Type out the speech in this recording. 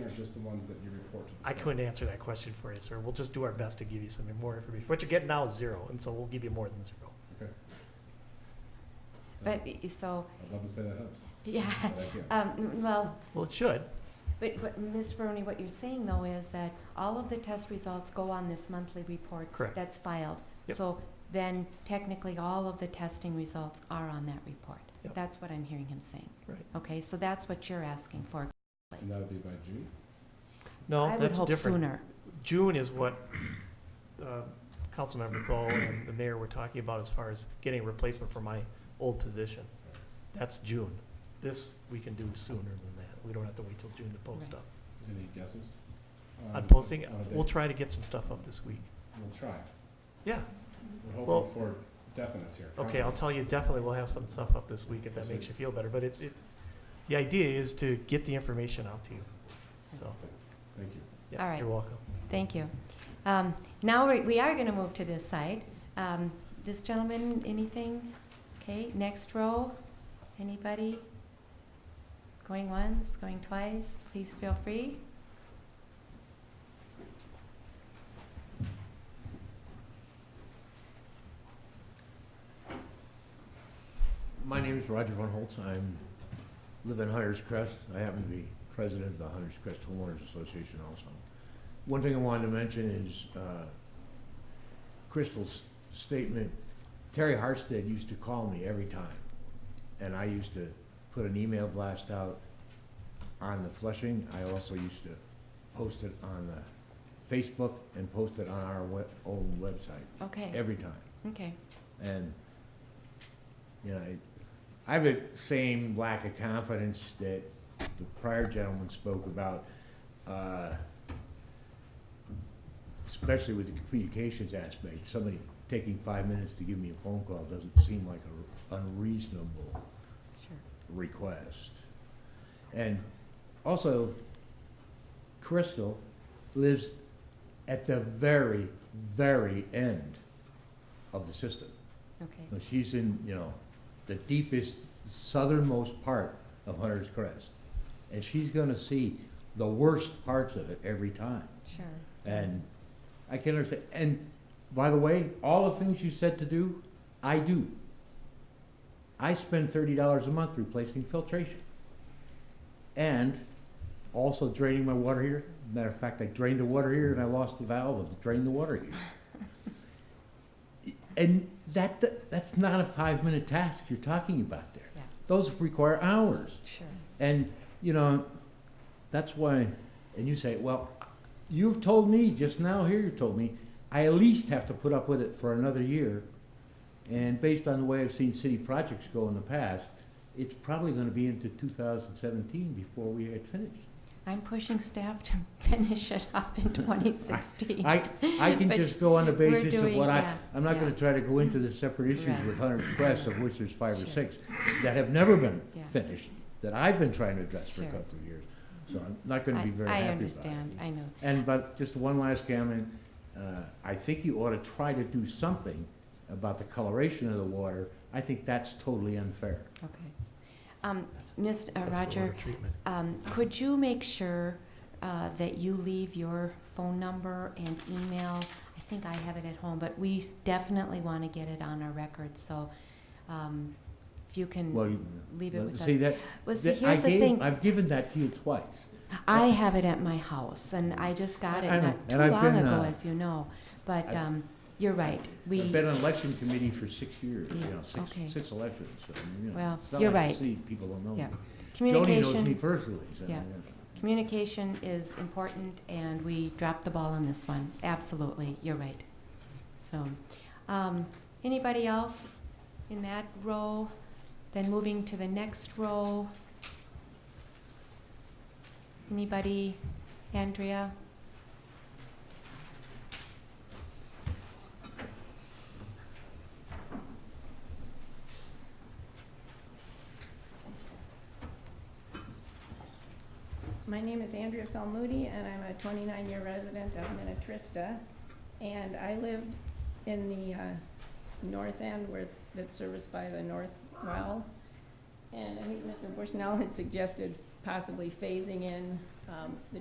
or just the ones that you report to the I state? couldn't answer that question for you, sir. We'll just do our best to give you some more information. What you're getting now is zero, and so we'll give you more than zero. Yeah. But, y- so, I'd love to say that helps, yeah, but I can't. um, n- well, Well, it should. but, but Ms. Rooney, what you're saying though is that all of the test results go on this monthly report. Correct. That's filed. Yep. So then technically, all of the testing results are on that report. Yep. That's what I'm hearing him saying. Right. Okay, so that's what you're asking for. And that would be by June? No, I would that's hope different. sooner. June is what uh, Councilmember Thole and the mayor were talking about as far as getting a replacement for my old position. That's June. This, we can do sooner than that. We don't have to wait till June to post Right. up. Any guesses? On Um, posting, on a we'll date? try to get some stuff up this week. We'll try. Yeah, We're Well- hoping for definites here. okay, I'll tell you, definitely we'll have some stuff up this week if that makes you feel better, but it, it, the idea is to get the information out to you, so, Thank you. All yeah, right. you're welcome. Thank you. Um, Now, we- we are going to move to this side. Um, This gentleman, anything? Okay, next row, anybody? Going once, going twice, please feel free. My name is Roger Von Holtz. I'm, live in Hunter's Crest. I happen to be president of the Hunter's Crest Homeowners Association also. One thing I wanted to mention is uh, Crystal's statement, Terry Hartstead used to call me every time. And I used to put an email blast out on the Flushing. I also used to post it on the Facebook and post it on our we- own website, Okay, every time. okay. And, you know, I- I have the same lack of confidence that the prior gentleman spoke about, uh, especially with the communications aspect. Somebody taking five minutes to give me a phone call doesn't seem like an unreasonable Sure. request. And also, Crystal lives at the very, very end of the system. Okay, Now, She's in, you know, the deepest southernmost part of Hunter's Crest. And she's gonna see the worst parts of it every time. sure. And I can understand, and by the way, all the things you said to do, I do. I spend thirty dollars a month replacing filtration. And also draining my water heater. Matter of fact, I drained the water heater and I lost the valve of drain the water heater. And that, that's not a five-minute task you're talking about there. Yeah. Those require hours. Sure. And, you know, that's why, and you say, well, you've told me just now here, you told me, I at least have to put up with it for another year. And based on the way I've seen city projects go in the past, it's probably gonna be into two thousand seventeen before we had finished. I'm pushing staff to finish it up in 2016. I, I can But just go on the we're basis of doing- what I, yeah, I'm not gonna yeah. try to go into the separate issues Right. with Hunter's Crest, of which there's five Sure. or six, that have never been Yeah. finished, that I've been trying to address for a Sure. couple of years. So I'm not gonna be I- very happy about it. I understand, I know. And but just one last comment, uh, I think you ought to try to do something about the coloration of the water. I think that's totally unfair. Okay. Um, Mr. uh, That's the Roger, water treatment. um, could you make sure uh, that you leave your phone number and email? I think I have it at home, but we definitely want to get it on our record, so um, if you Well, can you- leave it with us. see that, Well, see, that I here's the gave, thing, I've given that to you twice. I have it at my house, and I just got it I know, not and too I've long been, ago, uh, as you know, but I- um, you're right, I've we, been on election committee for six years, you Yeah, know, six, okay. six elections, so, I mean, you know. Well, it's not you're like I right. See, people don't know me. Yeah. Joni knows me communication, personally, so. Yeah. you know. communication is important, and we dropped the ball on this one, absolutely, you're right. So, um, anybody else in that row? Then moving to the next row. Anybody? Andrea? My name is Andrea Falmoudy, and I'm a 29-year resident of Minnetrista. And I live in the uh, north end where, that's serviced by the North Well. And I think Mr. Bushnell had suggested possibly phasing in um, the